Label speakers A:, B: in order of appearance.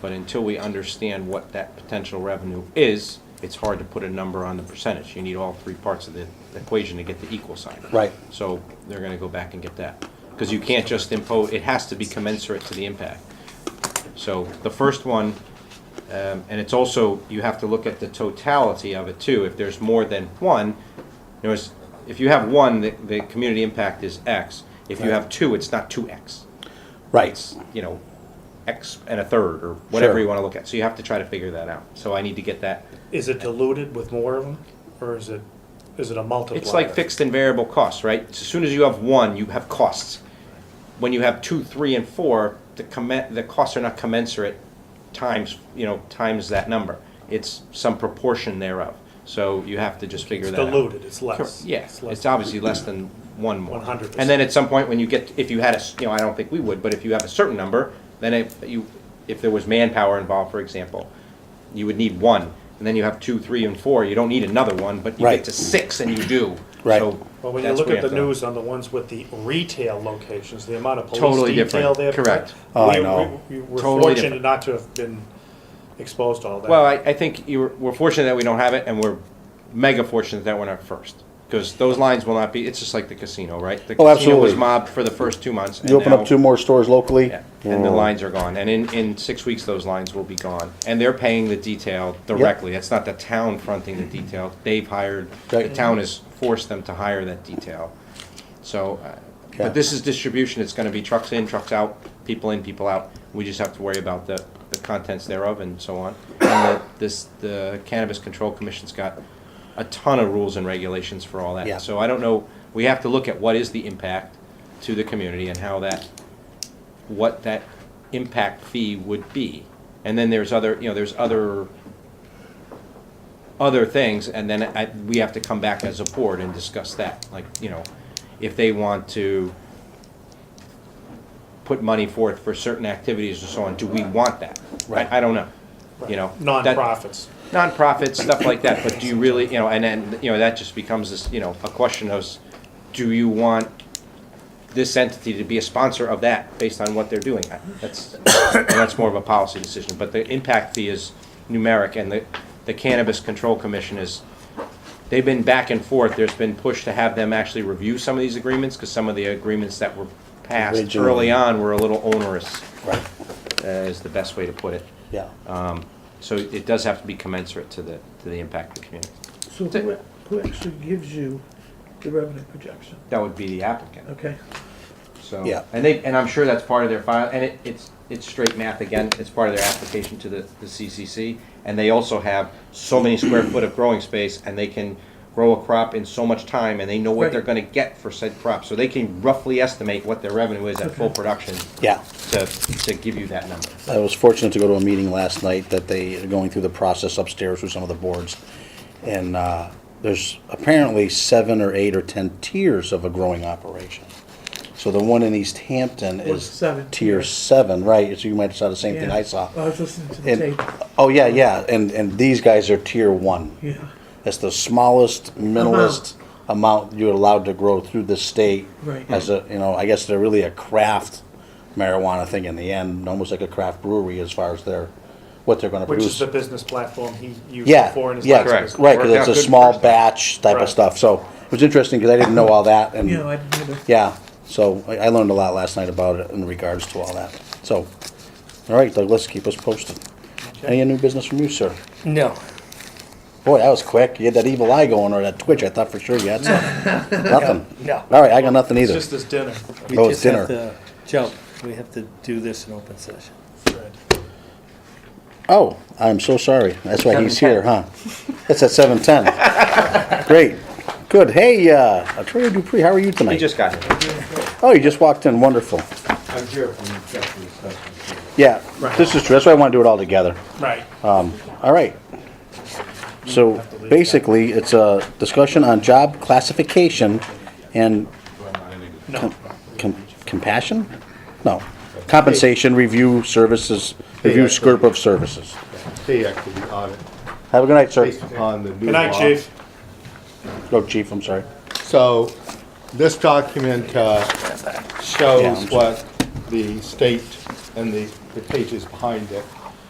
A: But until we understand what that potential revenue is, it's hard to put a number on the percentage. You need all three parts of the equation to get the equal sign.
B: Right.
A: So they're gonna go back and get that. Because you can't just impose, it has to be commensurate to the impact. So the first one, um, and it's also, you have to look at the totality of it too. If there's more than one, you know, it's- if you have one, the, the community impact is X. If you
B: Right.
A: have two, it's not two X.
B: Right.
A: You know, X and a third, or whatever
B: Sure.
A: you wanna look at. So you have to try to figure that out. So I need to get that.
C: Is it diluted with more of them, or is it, is it a multiplier?
A: It's like fixed and variable costs, right? As soon as you have one, you have costs. When you have two, three, and four, the commen, the costs are not commensurate times, you know, times that number. It's some proportion thereof. So you have to just figure
C: It's
A: that out.
C: diluted, it's less.
A: Yes,
C: less.
A: it's obviously less than one more.
C: 100%.
A: And then at some point, when you get, if you had a, s- you know, I don't think we would, but if you have a certain number, then if you, if there was manpower involved, for example, you would need one, and then you have two, three, and four, you don't need another one, but you
B: Right.
A: get to six and you do.
B: Right.
A: So
C: Well, when you
A: that's
C: look
A: where
C: at
A: you
C: the
A: have to-
C: news on the ones with the retail locations, the amount of
A: Totally
C: police detail
A: different.
C: there.
A: Correct.
B: Oh, I
C: we-
B: know.
C: we- we We're
A: Totally
C: fortunate
A: different.
C: not to have been exposed to all that.
A: Well, I, I think you, were- we're fortunate that we don't have it, and we're mega fortunate that we're not first. Because those lines will not be, it's just like the casino, right?
B: Oh,
A: The casino was
B: absolutely.
A: mobbed for the first two months. and
B: You open
A: now-
B: up two more stores locally? Oh,
A: Yeah, and the lines are gone, and in, in six weeks, those lines will be gone, and they're paying the detail directly, it's not the town fronting the detail, they've hired, the
B: Right.
A: town has forced them to hire that detail, so, uh,
B: Yeah.
A: but this is distribution, it's gonna be trucks in, trucks out, people in, people out, we just have to worry about the, the contents thereof and so on. And the, this, the Cannabis Control Commission's got a ton of rules and regulations for all
B: Yeah.
A: that, so I don't know, we have to look at what is the impact to the community and how that what that impact fee would be. And then there's other, you know, there's other, other things, and then I, we have to come back as a board and discuss that, like, you know, if they want to put money forth for certain activities and so on, do we want that? I-
B: Right.
A: I don't know, you know. that-
C: Nonprofits.
A: nonprofits, stuff like that, but do you really, you know, and then, you know, that just becomes this, you know, a question of, s- do you want this entity to be a sponsor of that based on what they're doing? I- That's, and that's more of a policy decision, but the impact fee is numeric, and the, the Cannabis Control Commission is, they've been back and forth, there's been push to have them actually review some of these agreements, because some of the agreements that were passed
B: Originally.
A: early on were a little onerous,
B: Right,
A: uh, is the best way to put it.
B: yeah.
A: Uh-huh. So it does have to be commensurate to the, to the impact of the community.
D: So who, who actually gives you the revenue projection?
A: That would be the applicant,
D: Okay,
A: so.
B: Yeah.
A: And they, and I'm sure that's part of their file, and it, it's, it's straight math again, it's part of their application to the, the CCC. And they also have so many square foot of growing space, and they can grow a crop in so much time, and they know what
D: Right.
A: they're gonna get for said crop. So they can roughly estimate what their revenue is at full production
B: Yeah.
A: to, to give you that number.
B: I was fortunate to go to a meeting last night that they are going through the process upstairs with some of the boards. And uh, there's apparently seven or eight or 10 tiers of a growing operation. So the one in East Hampton
D: Was
B: is
D: seven.
B: tier seven, right? So you might have saw the same thing
D: yeah. Oh,
B: I saw.
D: Well, I was listening to the
B: And,
D: tape,
B: oh, yeah, yeah. And, and these guys are tier one.
D: yeah,
B: That's the smallest, minimalist amount you're allowed to grow through the state.
D: Right.
B: As a, you know, I guess they're really a craft marijuana thing in the end, almost like a craft brewery as far as their, what they're gonna
C: Which is
B: produce.
C: the business platform he used
B: Yeah,
C: before in his
B: yeah,
C: last
A: Correct.
C: business.
B: right, cause
A: Worked out
B: it's a
A: good
B: small
A: first time.
B: batch type of
C: Right.
B: stuff, so it was interesting, cause I didn't know all that and.
D: you know, I didn't either.
B: Yeah, so I, I learned a lot last night about it in regards to all that, so, all right, Doug, let's keep us posted. Any new business from you, sir?
C: No.
B: Boy, that was quick. You had that evil eye going or that twitch. I thought for sure you had something. nothing.
E: No.
B: All right, I got nothing
C: It's
B: either.
C: just this dinner.
E: We
B: Oh, it's
E: just have
B: dinner.
E: to jump. We have to do this in open session.
B: Oh, I'm so sorry. That's why he's
A: 7:10.
B: here, huh? It's at 7:10. Great. Good. Hey, uh, Attorney Dupree, how are you
A: He
B: tonight?
A: just got here.
B: oh, you just walked in. Wonderful.
F: I'm here from the Jeffrey Assessment.
B: Yeah, this is true. That's why I want to do it all together.
C: Right.
B: Uh, All right. So basically, it's a discussion on job classification and
C: No.
B: Com- compassion? No. Compensation, review services, review scope of services.
F: Pay equity audit
B: Have a good night, sir.
F: based upon the new law.
C: Good night, chief.
B: Go, chief, I'm sorry.
F: So this document uh,
B: Yeah,
F: shows
B: I'm sorry.
F: what the state and the, the pages behind it